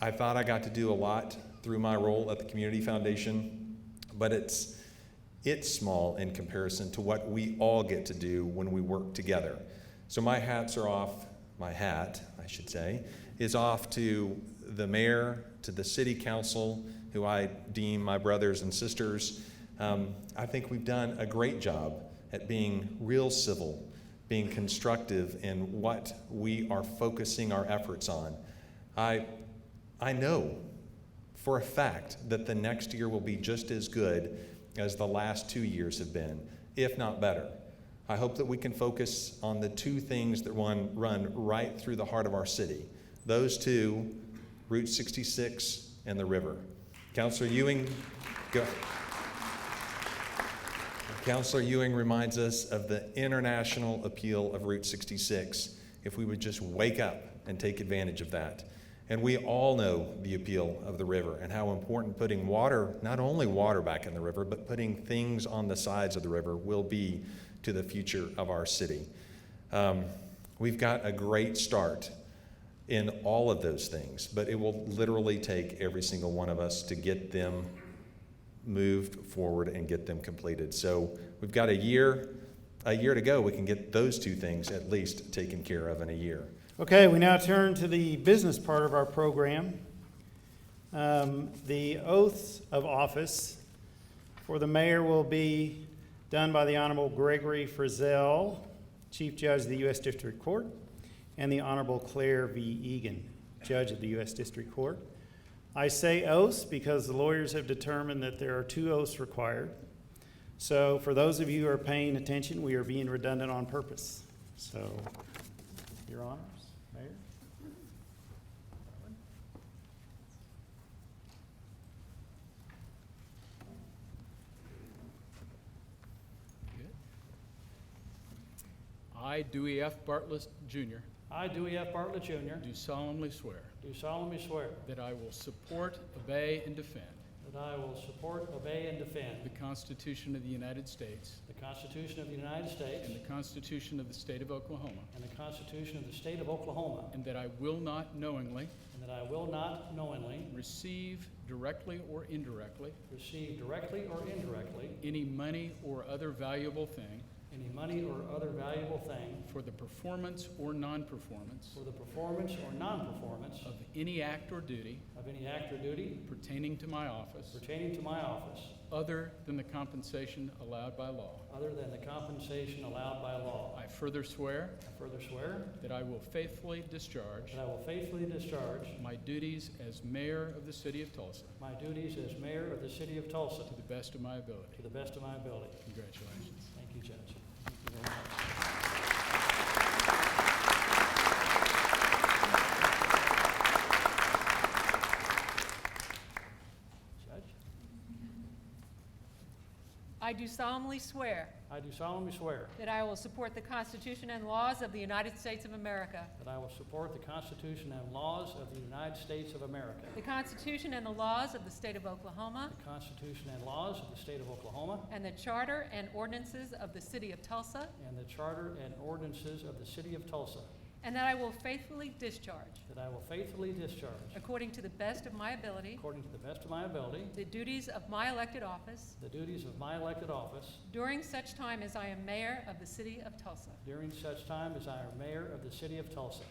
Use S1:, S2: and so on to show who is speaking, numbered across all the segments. S1: I thought I got to do a lot through my role at the Community Foundation, but it's, it's small in comparison to what we all get to do when we work together. So my hats are off, my hat, I should say, is off to the mayor, to the city council, who I deem my brothers and sisters. Um, I think we've done a great job at being real civil, being constructive in what we are focusing our efforts on. I, I know for a fact that the next year will be just as good as the last two years have been, if not better. I hope that we can focus on the two things that run, run right through the heart of our city. Those two, Route 66 and the river. Councillor Ewing, go. Councillor Ewing reminds us of the international appeal of Route 66. If we would just wake up and take advantage of that. And we all know the appeal of the river and how important putting water, not only water back in the river, but putting things on the sides of the river will be to the future of our city. Um, we've got a great start in all of those things, but it will literally take every single one of us to get them moved forward and get them completed. So we've got a year, a year to go. We can get those two things at least taken care of in a year.
S2: Okay, we now turn to the business part of our program. Um, The oaths of office for the mayor will be done by the Honorable Gregory Frizell, Chief Judge of the U.S. District Court, and the Honorable Claire V. Egan, Judge of the U.S. District Court. I say oaths because the lawyers have determined that there are two oaths required. So for those of you who are paying attention, we are being redundant on purpose. So, Your Honors, Mayor.
S3: I, Dewey F. Bartlett Jr.,
S4: I, Dewey F. Bartlett Jr.,
S3: do solemnly swear
S4: do solemnly swear
S3: that I will support, obey, and defend
S4: that I will support, obey, and
S3: the
S4: defend
S3: Constitution of the United States
S4: the Constitution of the United States
S3: and the Constitution of the State of Oklahoma,
S4: and the Constitution of the State of Oklahoma,
S3: and that I will not knowingly
S4: and that I will not knowingly
S3: receive directly or indirectly
S4: receive directly or indirectly
S3: any money or other valuable thing
S4: any money or other valuable thing
S3: for the performance or non-performance
S4: for the performance or non-performance
S3: of any act or duty
S4: of any act or duty
S3: pertaining to my office
S4: pertaining to my office
S3: other than the compensation allowed by law.
S4: other than the compensation allowed by law.
S3: I further swear
S4: I further swear
S3: that I will faithfully discharge
S4: that I will faithfully discharge
S3: My duties as mayor of the city of Tulsa
S4: my duties as mayor of the City of Tulsa
S3: to the best of my ability.
S4: to the best of my ability.
S3: Congratulations.
S4: Thank you, Judge. Judge,
S5: I do solemnly swear
S4: I do solemnly swear
S5: that I will support the Constitution and laws of the United States of America,
S4: that I will support the Constitution and laws of the United States of America,
S5: the Constitution and the laws of the State of Oklahoma,
S4: the Constitution and laws of the State of Oklahoma,
S5: and the Charter and ordinances of the City of Tulsa,
S4: and the Charter and ordinances of the City of Tulsa,
S5: and that I will faithfully discharge,
S4: that I will faithfully discharge,
S5: according to the best of my ability,
S4: according to the best of my ability,
S5: the duties of my elected office
S4: the duties of my elected office
S5: during such time as I am mayor of the City of Tulsa.
S4: during such time as I am mayor of the city of Tulsa.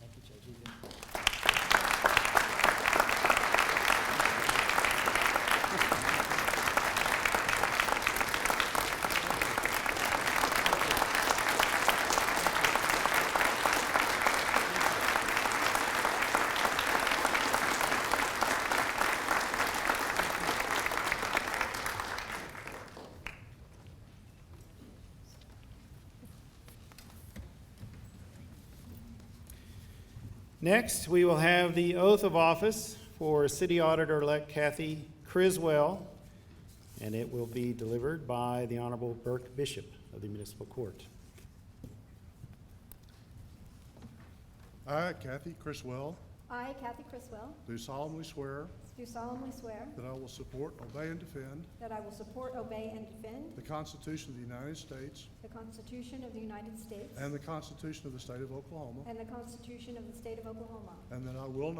S4: Thank you, Judge Egan.
S2: Next, we will have the oath of office for City Auditor-elect Kathy Criswell, and it will be delivered by the Honorable Burke Bishop of the Municipal Court.
S6: I, Kathy Criswell,
S7: I, Kathy Criswell,
S6: do solemnly swear
S7: do solemnly swear
S6: that I will support, obey, and defend
S7: that I will support, obey, and defend
S6: the Constitution of the United States
S7: the Constitution of the United States
S6: and the Constitution of the State of Oklahoma,
S7: and the Constitution of the State of Oklahoma,
S6: and that I will